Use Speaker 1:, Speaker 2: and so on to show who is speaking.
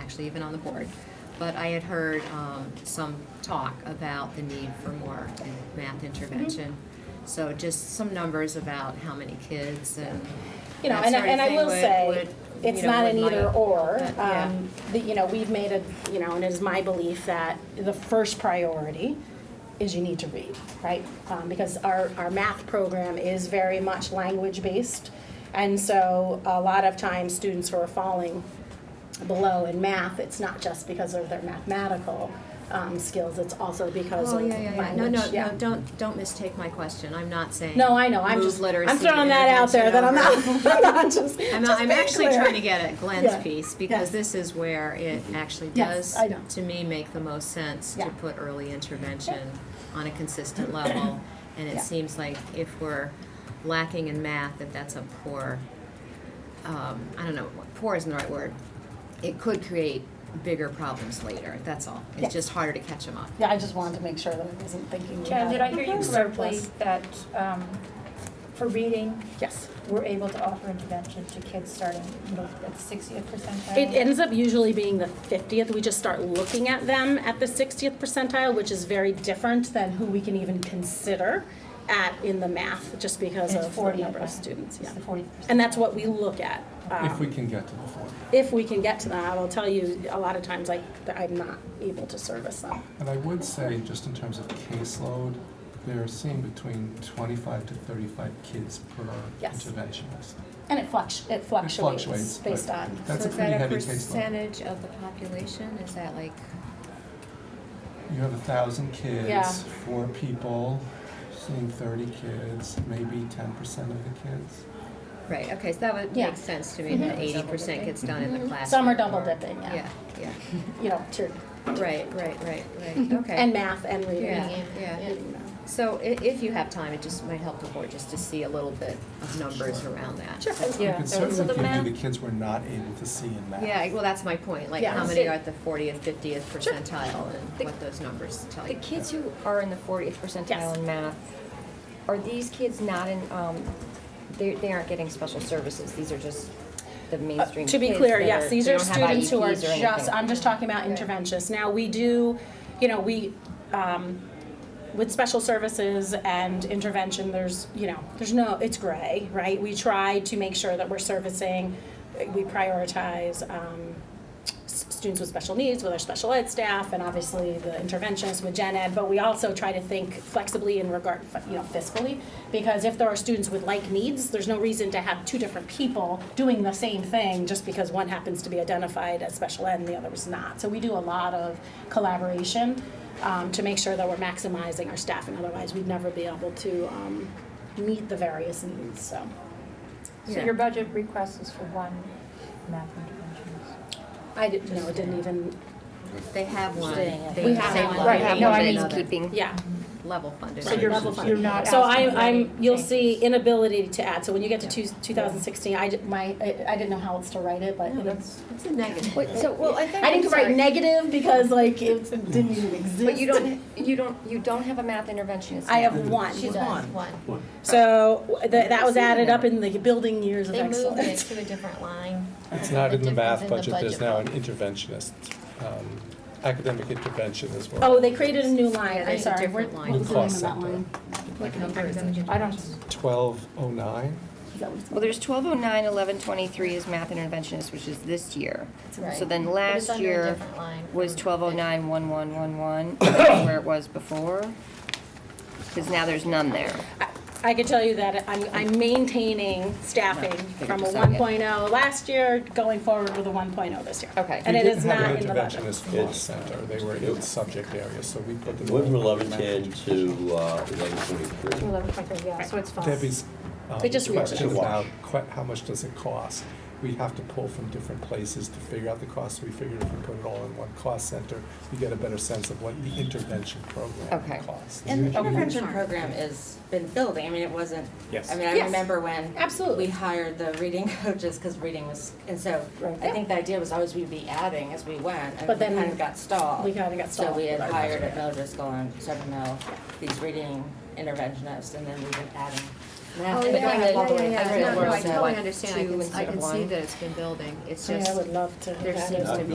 Speaker 1: actually even on the board. But I had heard um, some talk about the need for more
Speaker 2: Mm-hmm.
Speaker 1: math intervention. So just some numbers about how many kids and
Speaker 2: You know,
Speaker 1: that
Speaker 2: and, I-
Speaker 1: sort of
Speaker 2: and I
Speaker 1: thing
Speaker 2: will
Speaker 1: would-
Speaker 2: say,
Speaker 1: would, you
Speaker 2: it's
Speaker 1: know,
Speaker 2: not
Speaker 1: would
Speaker 2: an
Speaker 1: light
Speaker 2: either
Speaker 1: up.
Speaker 2: or.
Speaker 1: But, yeah.
Speaker 2: Um, the- You know, we've made a, you know, and it is my belief that the first priority is you need to read, right? Um, because our, our math program is very much language-based. And so a lot of times, students who are falling below in math, it's not just because of their mathematical, um, skills, it's also because
Speaker 1: Oh,
Speaker 2: of
Speaker 1: yeah,
Speaker 2: language,
Speaker 1: yeah, yeah.
Speaker 2: yeah.
Speaker 1: No, no, no, don't, don't mistake my question. I'm not saying.
Speaker 2: No, I know, I'm
Speaker 1: move
Speaker 2: just, I'm
Speaker 1: literacy
Speaker 2: throwing that out there, that I'm not,
Speaker 1: intervention
Speaker 2: I'm not just,
Speaker 1: over. I'm,
Speaker 2: just
Speaker 1: not- I'm
Speaker 2: being
Speaker 1: actually
Speaker 2: clear.
Speaker 1: trying to get at
Speaker 2: Yeah,
Speaker 1: Glenn's piece
Speaker 2: yes.
Speaker 1: because this is where it actually
Speaker 2: Yes,
Speaker 1: does,
Speaker 2: I know.
Speaker 1: to me, make the most sense
Speaker 2: Yeah.
Speaker 1: to put early intervention on a consistent level. And it
Speaker 2: Yeah.
Speaker 1: seems like if we're lacking in math, that that's a poor, um, I don't know, poor isn't the right word. It could create bigger problems later, that's all.
Speaker 2: Yeah.
Speaker 1: It's just harder to catch them up.
Speaker 2: Yeah, I just wanted to make sure that I wasn't thinking.
Speaker 3: Jen, did I hear you correctly
Speaker 2: surplus.
Speaker 3: that um, for reading,
Speaker 2: Yes.
Speaker 3: we're able to offer intervention to kids starting middle- at the 60th percentile?
Speaker 2: It ends up usually being the 50th. We just start looking at them at the 60th percentile, which is very different than who we can even consider at, in the math, just because
Speaker 3: And it's
Speaker 2: of the
Speaker 3: 40th,
Speaker 2: number of
Speaker 3: right?
Speaker 2: students, yeah.
Speaker 3: It's the 40th
Speaker 2: And that's what we look at.
Speaker 4: If we
Speaker 2: um,
Speaker 4: can get to the forty.
Speaker 2: If we can get to them. I will tell you, a lot of times, like, I'm not able to service them.
Speaker 4: And I would say, just in terms of caseload, they're seeing between twenty-five to thirty-five kids per
Speaker 2: Yes.
Speaker 4: interventionist.
Speaker 2: And it fluctuates, it fluctuates
Speaker 4: fluctuates,
Speaker 2: based
Speaker 4: but-
Speaker 2: on,
Speaker 4: That's a pretty heavy
Speaker 1: So is
Speaker 4: caseload.
Speaker 1: that a percentage of the population? Is that like?
Speaker 4: You have a thousand
Speaker 2: Yeah.
Speaker 4: kids, four people, seeing thirty kids, maybe ten percent of the kids.
Speaker 1: Right, okay, so that would
Speaker 2: Yeah.
Speaker 1: make sense to me, that eighty percent gets done in the classroom.
Speaker 2: Some are double
Speaker 1: or-
Speaker 2: dipping, yeah.
Speaker 1: Yeah, yeah,
Speaker 2: you know, to,
Speaker 1: right, right, right, right, okay.
Speaker 2: and math and reading.
Speaker 1: Yeah, yeah.
Speaker 2: and, uh,
Speaker 1: So i- if you have time, it just might help the board just to see a little bit of numbers around that.
Speaker 2: Sure.
Speaker 4: We
Speaker 5: Yeah,
Speaker 4: can
Speaker 5: so- so the
Speaker 4: certainly give
Speaker 5: math-
Speaker 4: you the kids we're not able to see in math.
Speaker 1: Yeah, well, that's my point, like,
Speaker 2: Yeah.
Speaker 1: how many are at the fortieth, fiftieth percentile,
Speaker 5: The-
Speaker 1: and what those numbers tell
Speaker 5: The
Speaker 1: you.
Speaker 5: kids who are in the fortieth
Speaker 2: Yes.
Speaker 5: percentile in math, are these kids not in, um, they, they aren't getting special services, these are just the
Speaker 2: Uh,
Speaker 5: mainstream
Speaker 2: To be
Speaker 5: kids
Speaker 2: clear,
Speaker 5: that
Speaker 2: yes, these
Speaker 5: they
Speaker 2: are
Speaker 5: don't have
Speaker 2: students who are
Speaker 5: IEPs or
Speaker 2: just,
Speaker 5: anything.
Speaker 2: I'm just talking about interventionists. Now, we do, you know, we, um, with special services and intervention, there's, you know, there's no, it's gray, right? We try to make sure that we're servicing, we prioritize, um, s- students with special needs, with our special ed staff, and obviously the interventionists with gen ed, but we also try to think flexibly in regard, you know, fiscally, because if there are students with like needs, there's no reason to have two different people doing the same thing just because one happens to be identified as special ed and the other is not. So we do a lot of collaboration um, to make sure that we're maximizing our staffing, otherwise we'd never be able to um, meet the various needs, so.
Speaker 3: So
Speaker 1: Yeah.
Speaker 3: your budget request is for one math interventionist?
Speaker 2: I didn't, no, it didn't even,
Speaker 1: They have one.
Speaker 5: Staying at
Speaker 1: They
Speaker 2: We
Speaker 1: have
Speaker 2: have
Speaker 1: same
Speaker 2: one.
Speaker 1: level
Speaker 3: Right,
Speaker 1: funded
Speaker 3: no, I
Speaker 1: as
Speaker 3: mean-
Speaker 1: another.
Speaker 5: Keeping.
Speaker 2: yeah.
Speaker 1: Level funded.
Speaker 2: So you're
Speaker 4: Right.
Speaker 2: level funded.
Speaker 3: You're not
Speaker 2: So
Speaker 3: asking
Speaker 2: I'm,
Speaker 3: for
Speaker 2: I'm,
Speaker 3: any
Speaker 2: you'll
Speaker 3: changes.
Speaker 2: see inability to add, so when you get to two,
Speaker 1: Yeah.
Speaker 2: two thousand sixteen, I, di- my, I, I didn't know how else to write it, but it's.
Speaker 1: It's a negative.
Speaker 5: Wait, so, well, I think,
Speaker 2: I
Speaker 5: I'm
Speaker 2: didn't write
Speaker 5: sorry,
Speaker 2: negative because like it didn't even exist.
Speaker 5: but you don't, you don't, you don't have a math interventionist
Speaker 2: I
Speaker 5: now.
Speaker 2: have one.
Speaker 6: She's one.
Speaker 2: So w- that, that was added up in the building years of
Speaker 6: They moved it
Speaker 2: excellence.
Speaker 6: to a different line.
Speaker 4: It's not in the
Speaker 6: difference
Speaker 4: math
Speaker 6: in
Speaker 4: budget, there's now an
Speaker 6: budget.
Speaker 4: interventionist, um, academic intervention as well.
Speaker 2: Oh, they created a new line,
Speaker 1: Yeah,
Speaker 2: I'm
Speaker 1: there's a
Speaker 2: sorry, where,
Speaker 1: different line.
Speaker 2: what was the
Speaker 4: New
Speaker 2: name of
Speaker 4: cost
Speaker 2: that
Speaker 4: center.
Speaker 2: line?
Speaker 1: What number is it?
Speaker 3: I don't,
Speaker 4: Twelve oh nine?
Speaker 2: Is that what it's-
Speaker 5: Well, there's twelve oh nine, eleven twenty-three is math interventionist, which is this year. So
Speaker 6: Right.
Speaker 5: then
Speaker 6: But it's
Speaker 5: last
Speaker 6: under a
Speaker 5: year
Speaker 6: different line
Speaker 5: was
Speaker 6: from-
Speaker 5: twelve oh nine, one one, one one, where it was before. Cause now there's none there.
Speaker 2: I could tell you that I'm, I'm maintaining staffing from a
Speaker 5: Figure this out
Speaker 2: one oh
Speaker 5: yet.
Speaker 2: last year, going forward with a one oh this year.
Speaker 5: Okay.
Speaker 2: And it is not in the budget.
Speaker 4: We didn't have an interventionist law center, they were in subject areas, so we put them.
Speaker 7: Went from
Speaker 4: all
Speaker 7: eleven
Speaker 4: in
Speaker 7: ten
Speaker 4: math.
Speaker 7: to uh, eleven twenty-three.
Speaker 3: 11.3, yeah, so it's false.
Speaker 4: Debbie's um,
Speaker 2: They just reworked
Speaker 4: question
Speaker 7: it.
Speaker 4: about que- how much does it cost? We have to pull from different places to figure out the cost, so we figured if we put it all in one cost center, we get a better sense of what the intervention
Speaker 5: Okay.
Speaker 4: program costs.
Speaker 8: And the intervention program has been building, I mean, it wasn't,
Speaker 4: Yes.
Speaker 8: I mean, I
Speaker 2: Yes.
Speaker 8: remember when
Speaker 2: Absolutely.
Speaker 8: we hired the reading coaches, because reading was, and so
Speaker 2: Right.
Speaker 8: I think the idea was always we'd be adding as we went, and
Speaker 2: But
Speaker 8: we
Speaker 2: then
Speaker 8: kind of got stalled.
Speaker 2: we kinda got stalled.
Speaker 8: So we had hired at Mel Driscoll and Seven Mill, these reading interventionists, and then we've been adding. math.
Speaker 1: Oh,
Speaker 8: And it
Speaker 1: yeah,
Speaker 8: kind
Speaker 1: yeah,
Speaker 8: of-
Speaker 1: yeah,
Speaker 8: kind
Speaker 1: yeah.
Speaker 8: of
Speaker 1: No, no, I
Speaker 8: worked out.
Speaker 1: totally understand. I
Speaker 5: two
Speaker 1: can, I
Speaker 5: instead of
Speaker 1: can see
Speaker 5: one.
Speaker 1: that it's been building. It's
Speaker 2: I mean, I
Speaker 1: just,
Speaker 2: would love to. have
Speaker 1: there
Speaker 2: added
Speaker 1: seems to
Speaker 2: it.
Speaker 1: be